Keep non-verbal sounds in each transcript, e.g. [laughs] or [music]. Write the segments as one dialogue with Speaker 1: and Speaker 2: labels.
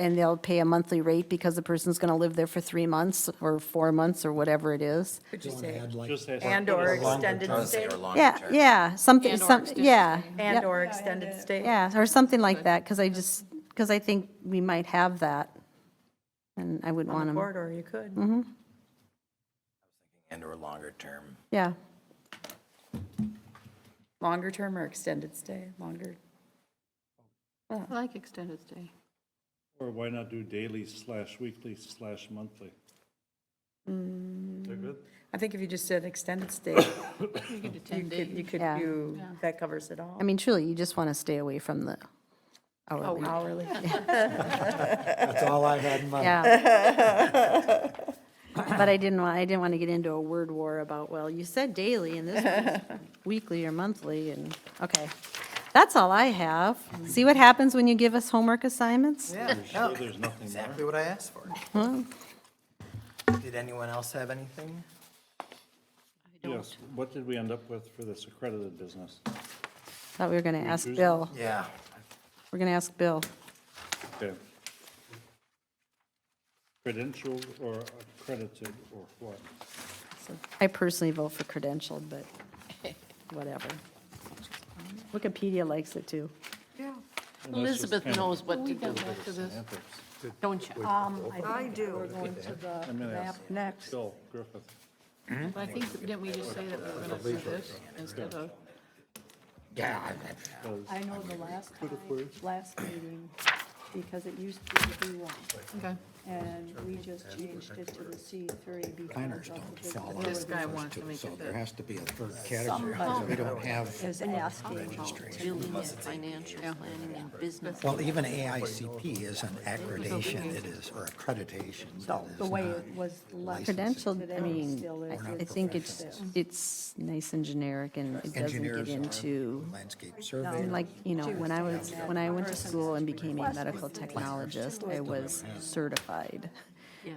Speaker 1: and they'll pay a monthly rate because the person's going to live there for three months or four months or whatever it is.
Speaker 2: Could you
Speaker 3: Don't
Speaker 2: say,
Speaker 3: add like,
Speaker 4: Just say something
Speaker 2: and/or
Speaker 4: along the
Speaker 2: extended
Speaker 4: term.
Speaker 2: stay?
Speaker 1: Yeah, yeah, something,
Speaker 5: And or
Speaker 1: some,
Speaker 5: extended
Speaker 1: yeah. yep,
Speaker 2: And/or extended stay?
Speaker 1: Yeah, or something like that, because I just, because I think we might have that. And I wouldn't want Mm-hmm,
Speaker 2: On the
Speaker 1: them,
Speaker 2: corridor, you could.
Speaker 6: Mm.
Speaker 7: and/or longer term.
Speaker 1: yeah.
Speaker 2: Longer term or extended stay, longer.
Speaker 5: I like extended stay.
Speaker 4: Or why not do daily slash weekly slash monthly? They're good?
Speaker 2: I think if you just said extended stay,
Speaker 5: You could do
Speaker 2: you
Speaker 5: 10
Speaker 2: could, you
Speaker 5: days.
Speaker 2: could
Speaker 1: Yeah.
Speaker 2: do, that covers it all.
Speaker 1: I mean, truly, you just want to stay away from the
Speaker 5: Oh,
Speaker 6: Oh,
Speaker 1: hourly.
Speaker 2: Hourly.
Speaker 3: that's all I had in mind.
Speaker 1: Yeah. But I didn't want, I didn't want to get into a word war about, well, you said daily and this was weekly or monthly and, okay. That's all I have. See what happens when you give us homework assignments?
Speaker 7: Yeah,
Speaker 4: Sure, there's nothing more.
Speaker 7: exactly what I asked for. Mm-hmm. Did anyone else have anything?
Speaker 4: Yes, what did we end up with for this accredited business?
Speaker 1: Thought we were going to ask
Speaker 4: choose
Speaker 1: Bill.
Speaker 7: Yeah.
Speaker 1: We're going to ask Bill.
Speaker 4: Okay. Credentialed or accredited or what?
Speaker 1: I personally vote for credentialed, but whatever.
Speaker 2: [laughs]
Speaker 1: Wikipedia likes it too.
Speaker 4: Unless it's
Speaker 5: Elizabeth
Speaker 4: kind of
Speaker 5: knows what to do after this,
Speaker 4: semantics.
Speaker 5: don't you?
Speaker 6: Um,
Speaker 2: I do. We're going to
Speaker 4: I'm
Speaker 2: the
Speaker 4: gonna
Speaker 2: map
Speaker 4: ask
Speaker 2: next.
Speaker 4: Bill Griffith.
Speaker 5: But I think, that- didn't we just say that we were going to do this instead of?
Speaker 7: Yeah.
Speaker 6: I know the last time, last meeting, because it used to be the B one,
Speaker 5: Okay.
Speaker 6: and we just changed it to the C three
Speaker 3: Planners
Speaker 6: because
Speaker 3: don't
Speaker 6: of the big.
Speaker 3: fall under
Speaker 5: This
Speaker 3: those
Speaker 5: guy wants to
Speaker 3: two,
Speaker 5: make
Speaker 3: so
Speaker 5: it
Speaker 3: there
Speaker 5: that
Speaker 3: has to be a third category, because we don't have,
Speaker 6: Is asking
Speaker 5: about building and financial planning and business.
Speaker 3: well, even AICP is an accreditation, it is, or accreditation. So
Speaker 6: the way it was left.
Speaker 1: Credentialed,
Speaker 6: today,
Speaker 1: I mean,
Speaker 6: still is,
Speaker 1: I- I think it's, it's nice and generic and it doesn't get
Speaker 3: Engineers
Speaker 1: into,
Speaker 3: are landscape survey.
Speaker 1: Um, like, you know, when I was, when I went to school and became a medical technologist, I was certified.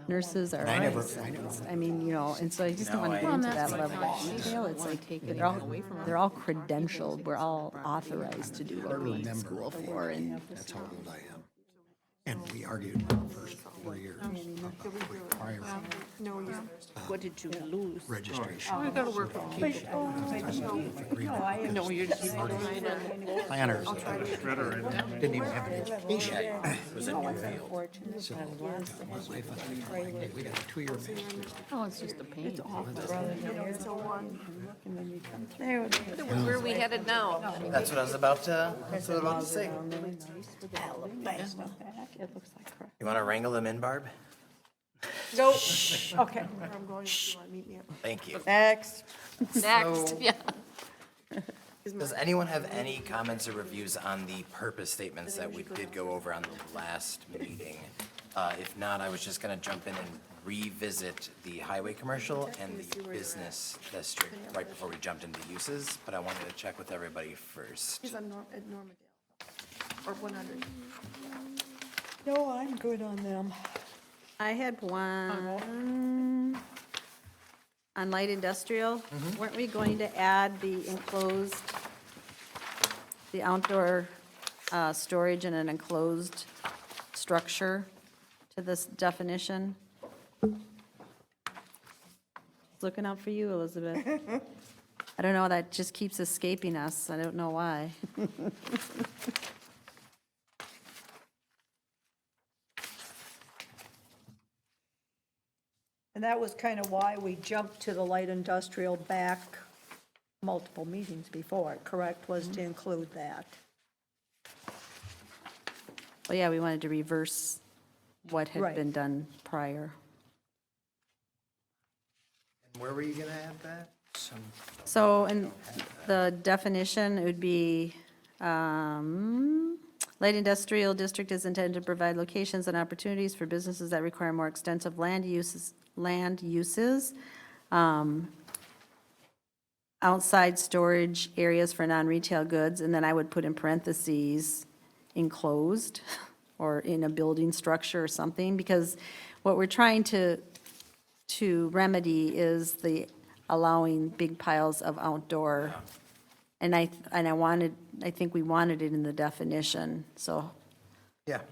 Speaker 1: Nurses are licensed, I mean, you know, and so I just don't want to get into that level. of detail. It's like, they're all, they're all credentialed, we're all authorized to do what we went to school for and
Speaker 3: That's how old I am. And we argued the first four years about requiring uh,
Speaker 5: What did you lose?
Speaker 3: registration. uh,
Speaker 5: I gotta work with people. No, you're just.
Speaker 3: Planners didn't even have an education. We got a two-year master's.
Speaker 5: Oh, it's just a pain.
Speaker 8: Where are we headed now?
Speaker 7: That's what I was about to, that's what I was about to say.
Speaker 6: It looks like crap.
Speaker 7: You want to wrangle them in, Barb?
Speaker 2: Nope, okay,
Speaker 7: Thank you.
Speaker 2: next.
Speaker 7: So-
Speaker 5: Next, yeah.
Speaker 7: Does anyone have any comments or reviews on the purpose statements that we did go over on the last meeting? Uh, If not, I was just going to jump in and revisit the highway commercial and the business district right before we jumped into uses, but I wanted to check with everybody first.
Speaker 8: He's on Norm, at Normandale, or 100.
Speaker 2: No, I'm good on them.
Speaker 1: I had one on light industrial. Weren't we going to add the enclosed, the outdoor uh, storage in an enclosed structure to this definition? Looking out for you, Elizabeth. I don't know, that just keeps escaping us. I don't know why.
Speaker 6: And that was kind of why we jumped to the light industrial back multiple meetings before, correct, was to include that.
Speaker 1: Well, yeah, we wanted to reverse what had
Speaker 6: Right.
Speaker 1: been done prior.
Speaker 7: Where were you going to add that? Some
Speaker 1: So in the definition, it would be, um, light industrial district is intended to provide locations and opportunities for businesses that require more extensive land uses, land uses. um, Outside storage areas for non-retail goods, and then I would put in parentheses enclosed [laughs] or in a building structure or something, because what we're trying to to remedy is the allowing big piles of outdoor. And I, and I wanted, I think we wanted it in the definition, so
Speaker 7: Yeah,